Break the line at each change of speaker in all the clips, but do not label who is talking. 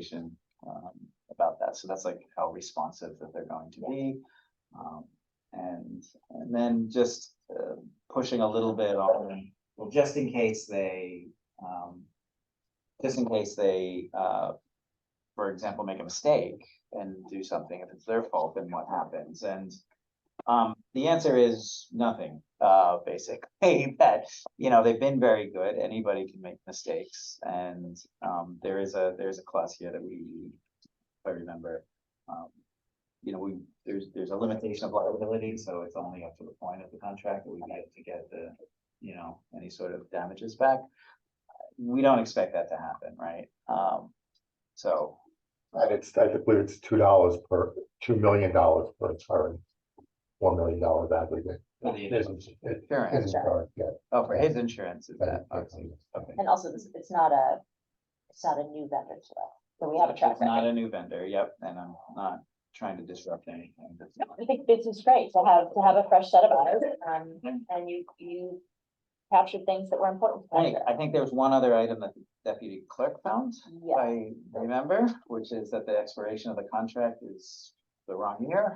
communication um, about that. So that's like how responsive that they're going to be. Um, and, and then just uh, pushing a little bit on, well, just in case they, um, just in case they, uh, for example, make a mistake and do something, if it's their fault, then what happens? And um, the answer is nothing, uh, basically, that, you know, they've been very good, anybody can make mistakes, and, um, there is a, there's a class here that we, if I remember, um, you know, we, there's, there's a limitation of liability, so it's only up to the point of the contract that we get to get the, you know, any sort of damages back. We don't expect that to happen, right? Um, so,
And it's, I believe it's two dollars per, two million dollars per turn. One million dollars aggregate.
For the-
It is- it
insurance,
is insured, yeah,
oh, for his insurance, is
but
that,
it's-
okay, okay.
And also, it's, it's not a, it's not a new vendor to us, so we have a track
It's Not
record.
a new vendor, yep, and I'm not trying to disrupt anything. that's-
I think this is great to have, to have a fresh set of eyes, um, and you, you captured things that were important. to
Hey,
capture.
I think there was one other item that the deputy clerk found, if
Yeah,
I remember, which is that the expiration of the contract is the wrong year.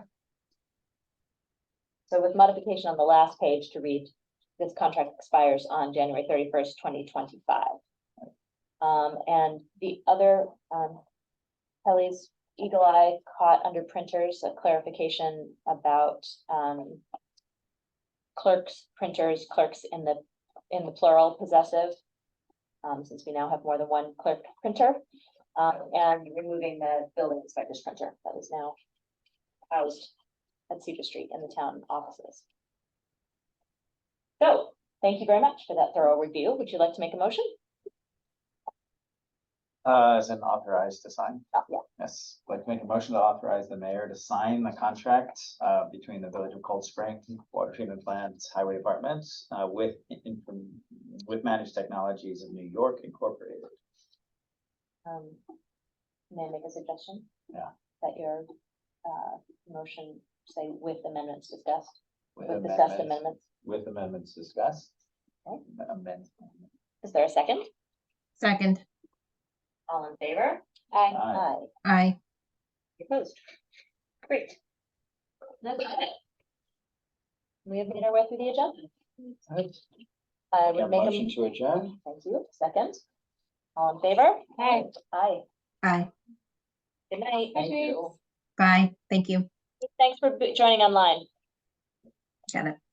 so with modification on the last page to read, this contract expires on January thirty-first, twenty twenty-five. Um, and the other, um, Kelly's eagle eye caught under printers, a clarification about, um, clerks, printers, clerks in the, in the plural possessive. Um, since we now have more than one clerk printer, um, and removing the building inspector's printer that is now housed at Cedar Street in the town offices. So, thank you very much for that thorough review. Would you like to make a motion?
Uh, as an authorized to sign,
Oh, yeah.
yes, like make a motion to authorize the mayor to sign the contract uh between the village of Cold Spring Water Treatment Plant Highway Department uh with in- from- with Managed Technologies of New York Incorporated.
Um, may I make a suggestion?
Yeah.
That your, uh, motion, say with amendments discussed,
with
with discussed
amendments-
amendments.
With amendments discussed.
Okay.
Amend.
Is there a second?
Second,
All in favor? Aye.
Aye.
Aye.
aye.
Opposed? Great. That's it. We have made our way through the agenda. I
Make a
would make a.
Motion to adjourn.
Thank you. Second. All in favor? Aye. Aye.
Aye,
Good night.
Thank you.
bye, thank you,
Thanks for b- joining online.
got it.